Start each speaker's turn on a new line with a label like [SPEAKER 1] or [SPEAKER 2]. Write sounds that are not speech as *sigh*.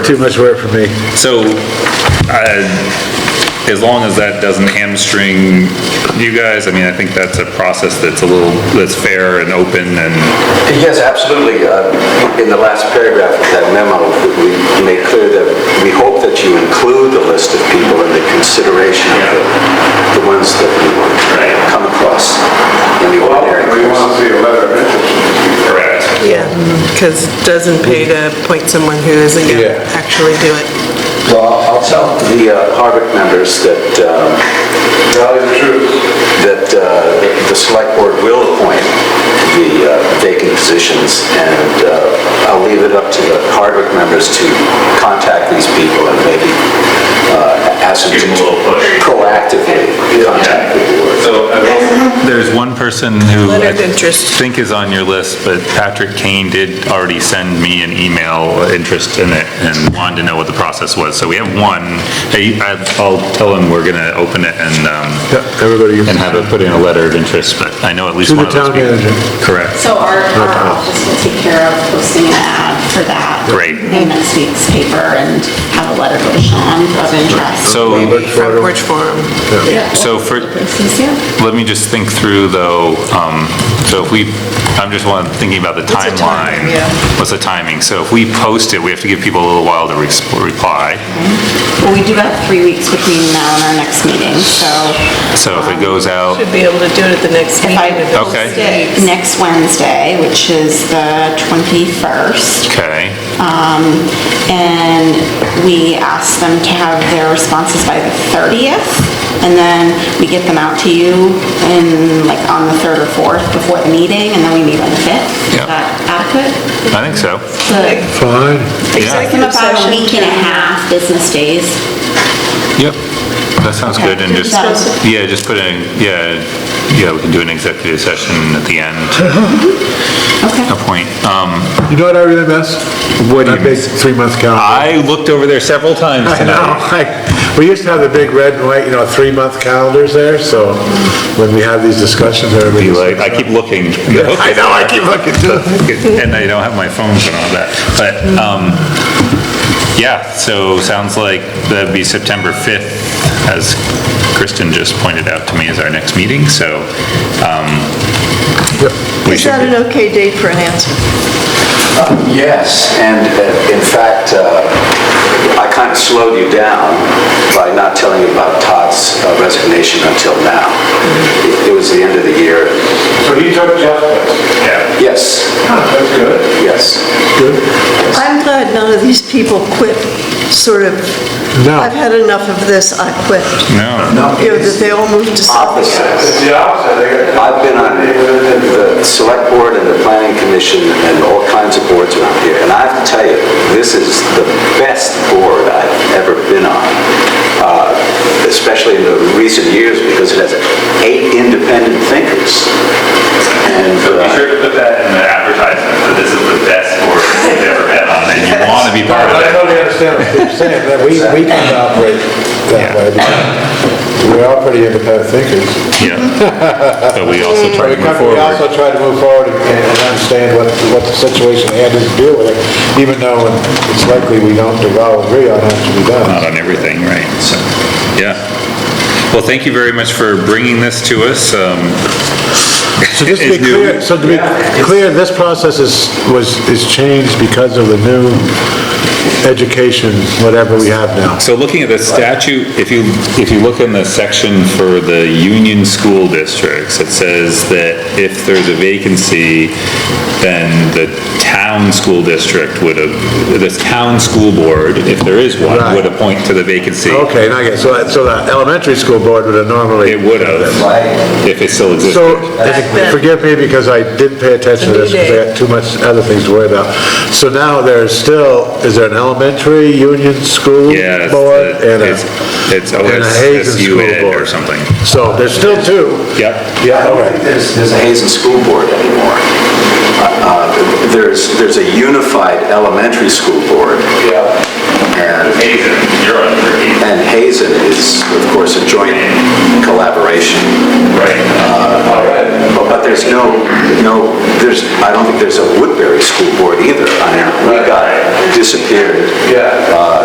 [SPEAKER 1] too much work for me.
[SPEAKER 2] So, uh, as long as that doesn't hamstring you guys, I mean, I think that's a process that's a little, that's fair and open and,
[SPEAKER 3] Yes, absolutely. Uh, In the last paragraph of that memo, we made clear that we hope that you include the list of people in the consideration of the- the ones that we want to come across in the ordinary
[SPEAKER 4] We
[SPEAKER 3] course.
[SPEAKER 4] want to see a letter of interest.
[SPEAKER 2] correct.
[SPEAKER 5] Yeah, because it doesn't pay to appoint someone who isn't going to
[SPEAKER 1] Yeah.
[SPEAKER 5] actually do it.
[SPEAKER 3] Well, I'll I'll tell the uh, Harvick members that, um,
[SPEAKER 4] Tell you the truth.
[SPEAKER 3] that uh, the select board will appoint the uh, vacant positions, and uh, I'll leave it up to the Harvick members to contact these people and maybe uh, ask them to
[SPEAKER 2] Give them a little push.
[SPEAKER 3] proactively contact the board.
[SPEAKER 2] So, I will- there's one person who I
[SPEAKER 5] Leonard interest.
[SPEAKER 2] think is on your list, but Patrick Kane did already send me an email, uh, interest in it, and wanted to know what the process was. So we have one, Hey, I- I'll tell him we're gonna open it and, um,
[SPEAKER 1] Yeah, Everybody,
[SPEAKER 2] and have it put in a letter of interest, but I know at least
[SPEAKER 1] To the
[SPEAKER 2] one of those
[SPEAKER 1] town
[SPEAKER 2] people.
[SPEAKER 1] manager.
[SPEAKER 2] Correct.
[SPEAKER 6] So our, our office will take care of posting an ad for that.
[SPEAKER 2] Great.
[SPEAKER 6] In next week's paper and have a letter go to Sean of interest.
[SPEAKER 2] So,
[SPEAKER 5] Front porch forum.
[SPEAKER 6] Yeah.
[SPEAKER 2] so for,
[SPEAKER 6] Places, yeah.
[SPEAKER 2] let me just think through though, um, so if we, I'm just one, thinking about the
[SPEAKER 5] the timing,
[SPEAKER 2] timeline.
[SPEAKER 5] yeah.
[SPEAKER 2] What's the timing? So if we post it, we have to give people a little while to re- reply.
[SPEAKER 6] Well, we do have three weeks between now and our next meeting, so
[SPEAKER 2] So if it goes out,
[SPEAKER 5] Should be able to do it at the next
[SPEAKER 6] if I
[SPEAKER 5] meeting.
[SPEAKER 6] post
[SPEAKER 2] Okay.
[SPEAKER 6] it next Wednesday, which is the 21st,
[SPEAKER 2] okay,
[SPEAKER 6] and we ask them to have their responses by the 30th, and then we get them out to you in, like, on the 3rd or 4th before the meeting, and then we meet on the 5th.
[SPEAKER 2] Yeah.
[SPEAKER 6] Is that adequate?
[SPEAKER 2] I think so.
[SPEAKER 6] The-
[SPEAKER 1] fine.
[SPEAKER 6] Give them
[SPEAKER 5] Executive
[SPEAKER 6] about a
[SPEAKER 5] session.
[SPEAKER 6] week and a half business days.
[SPEAKER 2] Yep. That sounds good and just,
[SPEAKER 6] Okay.
[SPEAKER 2] yeah, just put in, yeah, yeah, we can do an executive session at the end,
[SPEAKER 1] *laughs*
[SPEAKER 6] Okay.
[SPEAKER 2] a point. Um,
[SPEAKER 1] You know what I really miss?
[SPEAKER 2] What do
[SPEAKER 1] That
[SPEAKER 2] you
[SPEAKER 1] big
[SPEAKER 2] miss?
[SPEAKER 1] three-month calendar.
[SPEAKER 2] I looked over there several times
[SPEAKER 1] I
[SPEAKER 2] tonight.
[SPEAKER 1] know, *laughs* I- we used to have the big red and white, you know, three-month calendars there, so when we have these discussions, everybody.
[SPEAKER 2] be like, I keep looking.
[SPEAKER 1] *laughs* I know, I keep looking too.
[SPEAKER 2] *laughs* And I don't have my phone and all that, but, um, yeah, so sounds like that'd be September 5th, as Kristen just pointed out to me, is our next meeting, so, um, we
[SPEAKER 7] Is that
[SPEAKER 2] should,
[SPEAKER 7] an okay date for an answer?
[SPEAKER 3] Yes, and uh, in fact, uh, I kind of slowed you down by not telling you about Todd's uh, resignation until now. It- It was the end of the year.
[SPEAKER 4] So he took Jeff's place.
[SPEAKER 2] yeah,
[SPEAKER 3] Yes,
[SPEAKER 4] That's good.
[SPEAKER 3] yes.
[SPEAKER 7] I'm glad none of these people quit, sort of,
[SPEAKER 1] No.
[SPEAKER 7] I've had enough of this, I quit.
[SPEAKER 2] no,
[SPEAKER 7] You know, that they all moved to something else.
[SPEAKER 3] Opposite.
[SPEAKER 4] It's the opposite. They got-
[SPEAKER 3] I've been on the Select Board and the Planning Commission and all kinds of boards around here, and I have to tell you, this is the best board I've ever been on, uh, especially in the recent years, because it has eight independent thinkers. And uh,
[SPEAKER 2] to put that in the advertisement, that this is the best board we've ever been on, and you want to be part of
[SPEAKER 4] I
[SPEAKER 2] it.
[SPEAKER 4] totally understand.
[SPEAKER 1] what you're saying, but we, we kind of operate that way. because We're all pretty independent thinkers. *laughs*
[SPEAKER 2] Yeah, but we also try
[SPEAKER 1] We
[SPEAKER 2] to move
[SPEAKER 1] come- we also
[SPEAKER 2] forward.
[SPEAKER 1] try to move forward and and understand what, what the situation had to do with it, even though it's likely we don't all agree on how it should be
[SPEAKER 2] not
[SPEAKER 1] done.
[SPEAKER 2] on everything, right? So, yeah. Well, thank you very much for bringing this to us. Um,
[SPEAKER 1] So just to be
[SPEAKER 2] It's new.
[SPEAKER 1] clear, so to be clear, this process is, was, is changed because of the new education, whatever we have now.
[SPEAKER 2] So looking at the statute, if you, if you look in the section for the union school districts, it says that if there's a vacancy, then the town school district would, have- this town school board, if there is one,
[SPEAKER 1] Right.
[SPEAKER 2] would appoint to the vacancy.
[SPEAKER 1] Okay, now I get, so, that- so the elementary school board would have normally.
[SPEAKER 2] It would have,
[SPEAKER 3] I
[SPEAKER 2] if it still existed.
[SPEAKER 1] So, forgive me because I didn't pay attention to this because I got too much other things to worry about. So now there's still, is there an elementary union school
[SPEAKER 2] Yeah, it's
[SPEAKER 1] board
[SPEAKER 2] the-
[SPEAKER 1] and a,
[SPEAKER 2] it's, it's
[SPEAKER 1] and a Hazen school
[SPEAKER 2] OSSUN or
[SPEAKER 1] board?
[SPEAKER 2] something.
[SPEAKER 1] So there's still two.
[SPEAKER 2] Yep.
[SPEAKER 1] Yeah,
[SPEAKER 3] don't
[SPEAKER 1] okay.
[SPEAKER 3] think there's there's a Hazen School Board anymore. Uh, uh, There's, there's a unified elementary school board,
[SPEAKER 4] Yeah.
[SPEAKER 3] and
[SPEAKER 2] Hazen, you're on three.
[SPEAKER 3] And Hazen is, of course, a joint collaboration.
[SPEAKER 2] Right.
[SPEAKER 4] All right.
[SPEAKER 3] But but there's no, no, there's, I don't think there's a Woodbury School Board either. I mean, we got disappeared.
[SPEAKER 4] Yeah.
[SPEAKER 3] uh,